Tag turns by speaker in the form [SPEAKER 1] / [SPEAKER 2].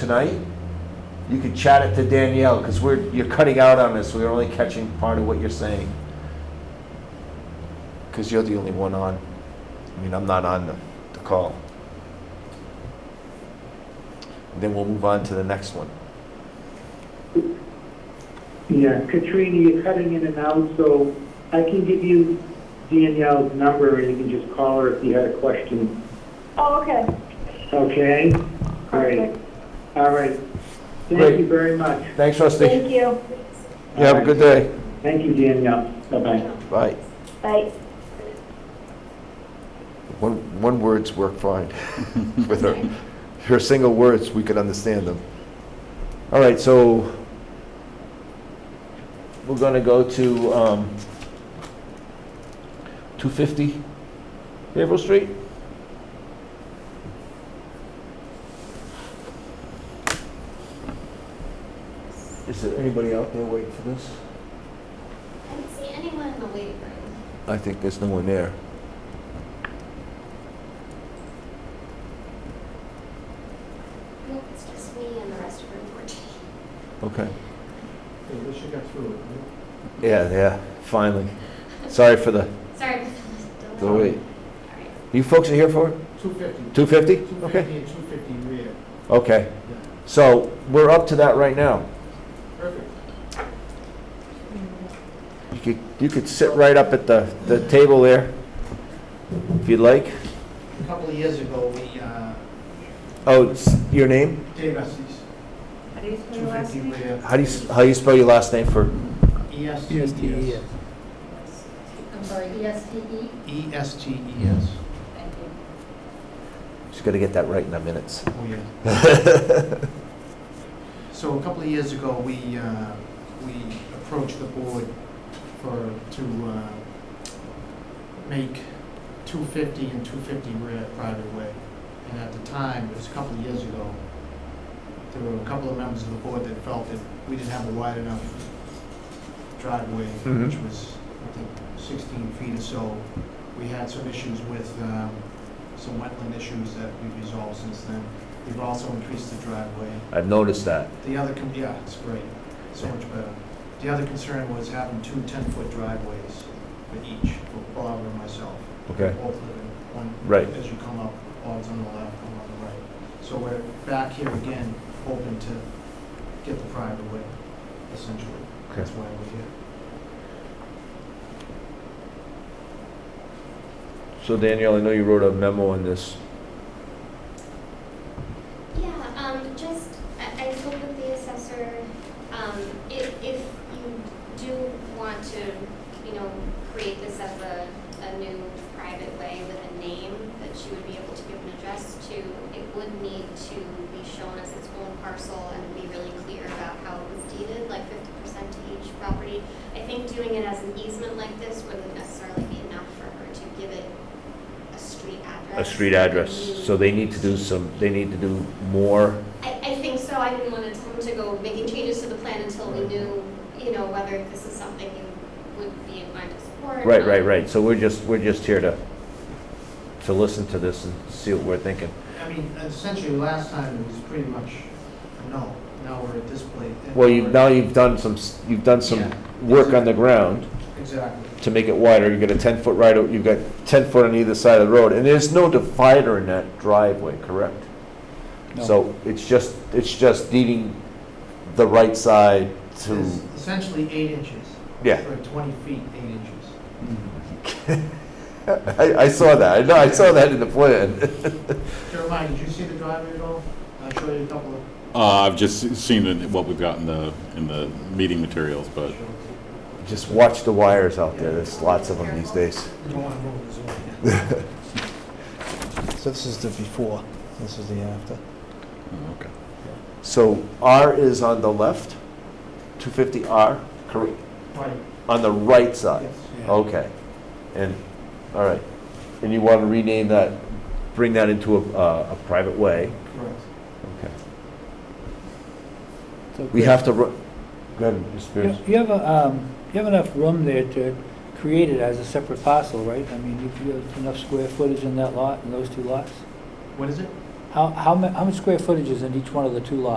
[SPEAKER 1] tonight, you could chat it to Danielle, because we're, you're cutting out on us, we're only catching part of what you're saying. Because you're the only one on, I mean, I'm not on the, the call. Then we'll move on to the next one.
[SPEAKER 2] Yeah, Katrina, you're cutting in and out, so I can give you Danielle's number and you can just call her if you had a question.
[SPEAKER 3] Oh, okay.
[SPEAKER 2] Okay? Great.
[SPEAKER 3] Perfect.
[SPEAKER 2] All right.
[SPEAKER 1] Great.
[SPEAKER 2] Thank you very much.
[SPEAKER 1] Thanks, Rusty.
[SPEAKER 3] Thank you.
[SPEAKER 1] You have a good day.
[SPEAKER 2] Thank you, Danielle. Bye-bye.
[SPEAKER 1] Bye.
[SPEAKER 3] Bye.
[SPEAKER 1] One, one words work fine with her. Her single words, we could understand them. All right, so we're gonna go to, um, two fifty Haverhill Street? Is there anybody out there waiting for this?
[SPEAKER 4] I didn't see anyone in the waiting room.
[SPEAKER 1] I think there's no one there.
[SPEAKER 4] Nope, it's just me and the rest of room 14.
[SPEAKER 1] Okay.
[SPEAKER 5] At least you got through it, right?
[SPEAKER 1] Yeah, yeah, finally. Sorry for the,
[SPEAKER 4] Sorry about the
[SPEAKER 1] the
[SPEAKER 4] delay.
[SPEAKER 1] wait.
[SPEAKER 4] All right.
[SPEAKER 1] You folks are here for it?
[SPEAKER 5] 250.
[SPEAKER 1] 250? Okay,
[SPEAKER 5] 250 and 250 rear.
[SPEAKER 1] okay.
[SPEAKER 5] Yeah.
[SPEAKER 1] So we're up to that right now.
[SPEAKER 5] Perfect.
[SPEAKER 1] You could, you could sit right up at the, the table there, if you'd like.
[SPEAKER 5] A couple of years ago, we, uh,
[SPEAKER 1] Oh, it's your name?
[SPEAKER 5] Dave Estes, 250 rear.
[SPEAKER 1] How do you, s- how do you spell your last name for,
[SPEAKER 5] E E-S-T-E-S.
[SPEAKER 3] I'm sorry,
[SPEAKER 4] E
[SPEAKER 3] ESTE?
[SPEAKER 5] E E-S-T-E-S.
[SPEAKER 3] Thank you.
[SPEAKER 1] just gotta get that right in the minutes.
[SPEAKER 5] Oh, yeah. So a couple of years ago, we, uh, we approached the board for, to uh, make 250 and 250 rear private way. And at the time, it was a couple of years ago, there were a couple of members of the board that felt that we didn't have a wide enough driveway,
[SPEAKER 1] Mhm.
[SPEAKER 5] which was, I think, 16 feet or so. We had some issues with um, some wetland issues that we've resolved since then. We've also increased the driveway.
[SPEAKER 1] I've noticed that.
[SPEAKER 5] The other, con- yeah, it's great, so much better. The other concern was having two 10-foot driveways for each, for Bob and myself.
[SPEAKER 1] Okay.
[SPEAKER 5] Both live in one.
[SPEAKER 1] Right.
[SPEAKER 5] As you come up, Bob's on the left, I'm on the right. So we're back here again, hoping to get the private way, essentially.
[SPEAKER 1] Okay.
[SPEAKER 5] That's why we're here.
[SPEAKER 1] So Danielle, I know you wrote a memo on this.
[SPEAKER 4] Yeah, um, just, I, I spoke with the assessor, um, if, if you do want to, you know, create this as a, a new private way with a name that she would be able to give an address to, it would need to be shown as its own parcel and be really clear about how it was deeded, like fifty percent to each property. I think doing it as an easement like this wouldn't necessarily be enough for her to give it a street
[SPEAKER 1] A
[SPEAKER 4] address.
[SPEAKER 1] street address, so they need to do some, they need to do more.
[SPEAKER 4] I, I think so, I didn't want to tell him to go making changes to the plan until we knew, you know, whether this is something you would be inclined to support.
[SPEAKER 1] Right, right, right. So we're just, we're just here to, to listen to this and see what we're thinking.
[SPEAKER 5] I mean, essentially, last time it was pretty much a no. Now we're at this place.
[SPEAKER 1] Well, you, now you've done some, s- you've done some
[SPEAKER 5] Yeah.
[SPEAKER 1] work on the ground
[SPEAKER 5] Exactly.
[SPEAKER 1] to make it wider. You've got a ten-foot right, you've got ten foot on either side of the road, and there's no divider in that driveway, correct? So it's just, it's just needing the right side to,
[SPEAKER 5] It's Essentially eight inches.
[SPEAKER 1] yeah.
[SPEAKER 5] Or 20 feet, eight inches.
[SPEAKER 1] I, I saw that. I know, I saw that in the plan.
[SPEAKER 5] Jeremiah, did you see the driveway at all? I showed you a couple of.
[SPEAKER 6] Uh, I've just seen it- what we've got in the, in the meeting materials, but
[SPEAKER 1] Just watch the wires out there. There's lots of them these days.
[SPEAKER 5] You don't want to move this one.
[SPEAKER 7] So this is the before, this is the after.
[SPEAKER 6] oh, okay.
[SPEAKER 1] So R is on the left, 250R, correct,
[SPEAKER 5] Right,
[SPEAKER 1] on the right side.
[SPEAKER 5] yes.
[SPEAKER 1] Okay, and, all right, and you want to rename that, bring that into a, uh, a private way?
[SPEAKER 5] Correct.
[SPEAKER 1] Okay. We have to, ru- go ahead, Mr. Spears.
[SPEAKER 8] You you have, a, um, you have enough room there to create it as a separate parcel, right? I mean, you- you have enough square footage in that lot, in those two lots?
[SPEAKER 5] What is it?
[SPEAKER 8] How- How, how mu, how much square footage is in each one of the two lots?